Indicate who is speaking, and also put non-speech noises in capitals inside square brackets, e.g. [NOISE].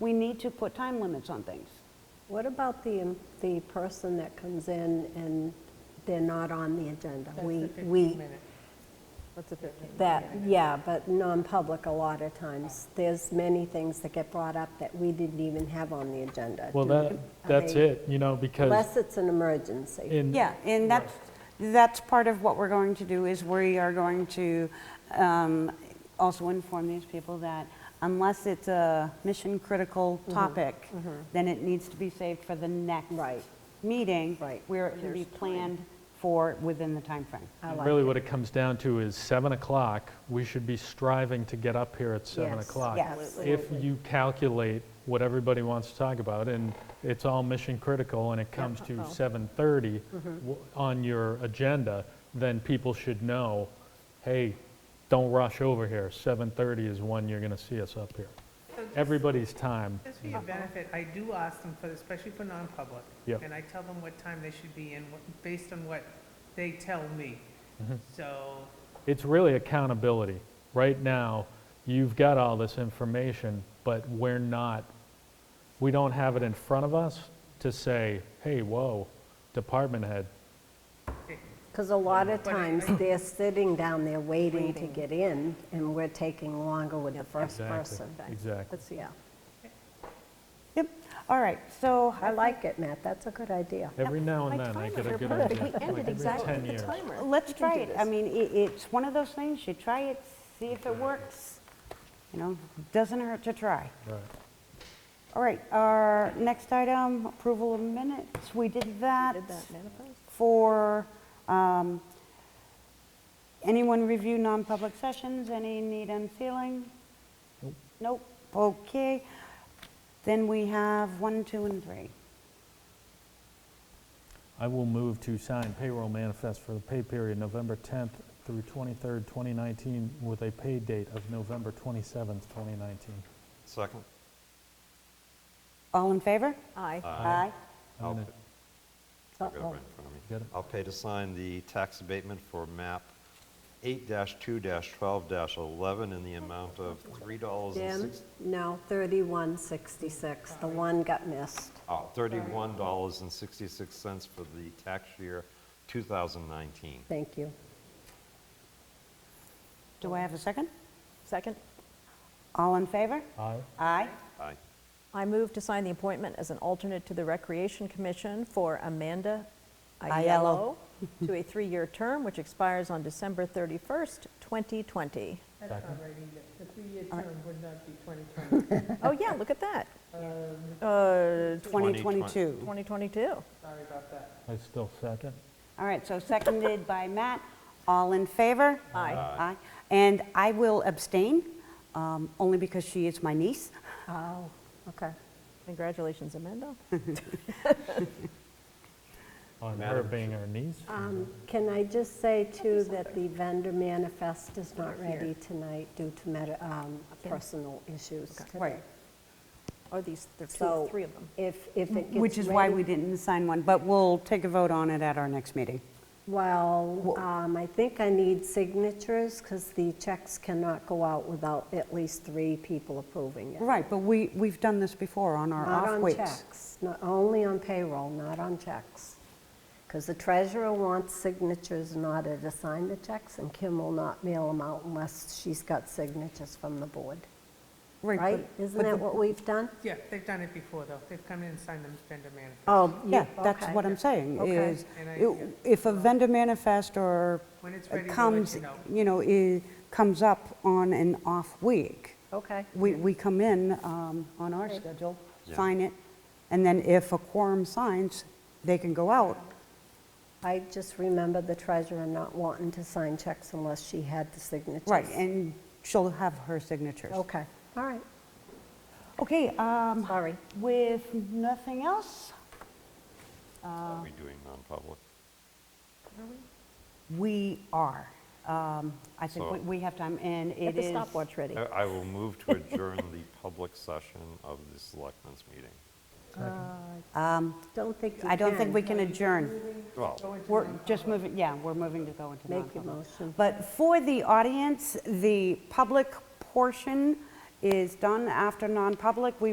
Speaker 1: we need to put time limits on things.
Speaker 2: What about the, the person that comes in and they're not on the agenda?
Speaker 3: That's
Speaker 2: We
Speaker 3: the 15
Speaker 2: we
Speaker 3: minute. That's a 15 minute.
Speaker 2: That, yeah, but non-public a lot of times. There's many things that get brought up that we didn't even have on the agenda.
Speaker 4: Well, that, that's
Speaker 2: Okay.
Speaker 4: it, you know, because
Speaker 2: Unless it's an emergency.
Speaker 4: in,
Speaker 1: Yeah, and that's, that's part of what we're going to do, is we are going to um, also inform these people that unless it's a mission-critical topic, then it needs to be saved for the next
Speaker 2: Right.
Speaker 1: meeting.
Speaker 2: Right.
Speaker 1: Where it can be
Speaker 2: There's time.
Speaker 1: planned for, within the timeframe.
Speaker 2: I like
Speaker 4: really
Speaker 2: it.
Speaker 4: what it comes down to is 7 o'clock, we should be striving to get up here at 7
Speaker 2: Yes,
Speaker 4: o'clock.
Speaker 2: yes.
Speaker 4: If you calculate what everybody wants to talk about, and it's all mission critical, and it comes to 7:30
Speaker 2: Mm-hmm.
Speaker 4: w- on your agenda, then people should know, hey, don't rush over here, 7:30 is when you're going to see us up here. Everybody's time,
Speaker 3: Just for your benefit, I do ask them for, especially for non-public.
Speaker 4: Yeah.
Speaker 3: And I tell them what time they should be in, what- based on what they tell me. So,
Speaker 4: it's really accountability. Right now, you've got all this information, but we're not, we don't have it in front of us to say, hey, whoa, department head,
Speaker 2: Because a lot of
Speaker 3: But I-
Speaker 2: times, they're sitting down there waiting to get in, and we're taking longer with the first
Speaker 4: exactly,
Speaker 2: person.
Speaker 4: exactly.
Speaker 2: Yeah,
Speaker 1: Yep, all right, so
Speaker 2: I like it, Matt, that's a good idea.
Speaker 4: Every now and then, I get a good idea. like every 10 years.
Speaker 1: Let's try it. I mean, i it's one of those things, you try it, see if it works. You know, doesn't hurt to try.
Speaker 4: Right.
Speaker 1: All right, our next item, approval of minutes. We did that for, um, anyone review non-public sessions? Any need unsealing? Nope, okay. Then we have one, two, and three.
Speaker 4: I will move to sign payroll manifest for the pay period November 10th through 23rd, 2019, with a pay date of November 27th, 2019.
Speaker 5: Second?
Speaker 1: All in favor?
Speaker 2: Aye.
Speaker 1: Aye.
Speaker 5: I'll
Speaker 4: gonna-
Speaker 5: p- I've got it right in front of me.
Speaker 4: Got it.
Speaker 5: I'll pay to sign the tax abatement for MAP 8-2-12-11 in the amount of
Speaker 2: Jim?
Speaker 5: $3.06.
Speaker 2: No, 3166, the one got missed.
Speaker 5: Oh, $31.66 for the tax year 2019.
Speaker 2: Thank you.
Speaker 1: Do I have a second?
Speaker 6: Second,
Speaker 1: All in favor?
Speaker 4: Aye.
Speaker 1: Aye.
Speaker 5: Aye.
Speaker 6: I move to sign the appointment as an alternate to the Recreation Commission for Amanda
Speaker 1: Aiello.
Speaker 6: Aiello to a three-year term which expires on December 31st, 2020.
Speaker 3: that's not right either. The three-year term would not be 2020.
Speaker 6: Oh, yeah, look
Speaker 2: [LAUGHS]
Speaker 6: at that. Uh,
Speaker 1: 2022.
Speaker 6: 2022.
Speaker 3: Sorry about that.
Speaker 4: I still second.
Speaker 1: All right, so seconded by Matt. All in favor?
Speaker 6: Aye.
Speaker 1: Aye. And I will abstain, um, only because she is my niece.
Speaker 2: Oh, okay.
Speaker 6: Congratulations, Amanda.
Speaker 4: On her
Speaker 5: Madam
Speaker 4: being our niece?
Speaker 2: Um, Can I just say too that the vendor manifest is not ready tonight due to med- um, personal issues today.
Speaker 6: Are these, there are
Speaker 2: So
Speaker 6: two, three of them.
Speaker 2: if, if it gets.
Speaker 1: Which is why
Speaker 2: ready-
Speaker 1: we didn't sign one, but we'll take a vote on it at our next meeting.
Speaker 2: Well, um, I think I need signatures because the checks cannot go out without at least three people approving it.
Speaker 1: Right, but we, we've done this before on our
Speaker 2: Not
Speaker 1: off
Speaker 2: on
Speaker 1: weeks.
Speaker 2: checks, not only on payroll, not on checks. Because the treasurer wants signatures in order to sign the checks and Kim will not mail them out unless she's got signatures from the board.
Speaker 1: Right, but-
Speaker 2: Right? Isn't
Speaker 1: but
Speaker 2: that
Speaker 1: the-
Speaker 2: what we've done?
Speaker 3: Yeah, they've done it before, though. They've come in and signed them vendor manifest.
Speaker 2: Oh, you-
Speaker 1: Yeah, that's
Speaker 2: okay.
Speaker 1: what I'm saying,
Speaker 2: Okay.
Speaker 1: is
Speaker 3: And I-
Speaker 1: i- if a vendor manifest or
Speaker 3: When it's ready, we'll let
Speaker 1: comes,
Speaker 3: you know.
Speaker 1: you know, i- comes up on an off week,
Speaker 2: Okay.
Speaker 1: we, we come in um, on our schedule,
Speaker 5: Yeah.
Speaker 1: sign it, and then if a quorum signs, they can go out.
Speaker 2: I just remember the treasurer not wanting to sign checks unless she had the signatures.
Speaker 1: Right, and she'll have her signatures.
Speaker 2: Okay, all right.
Speaker 1: Okay, um,
Speaker 2: Sorry.
Speaker 1: with nothing else,
Speaker 5: Are we doing non-public?
Speaker 1: we are. Um, I think
Speaker 5: So-
Speaker 1: we- we have time, and it is...
Speaker 6: Get the stopwatch ready.
Speaker 5: I I will move to adjourn the public session of the selectmen's meeting.
Speaker 2: Don't think you
Speaker 1: I don't think
Speaker 2: can.
Speaker 1: we can adjourn.
Speaker 5: Well,
Speaker 1: We're just moving, yeah, we're moving to go into
Speaker 2: Make your
Speaker 1: non-public.
Speaker 2: motion.
Speaker 1: But for the audience, the public portion is done after non-public. We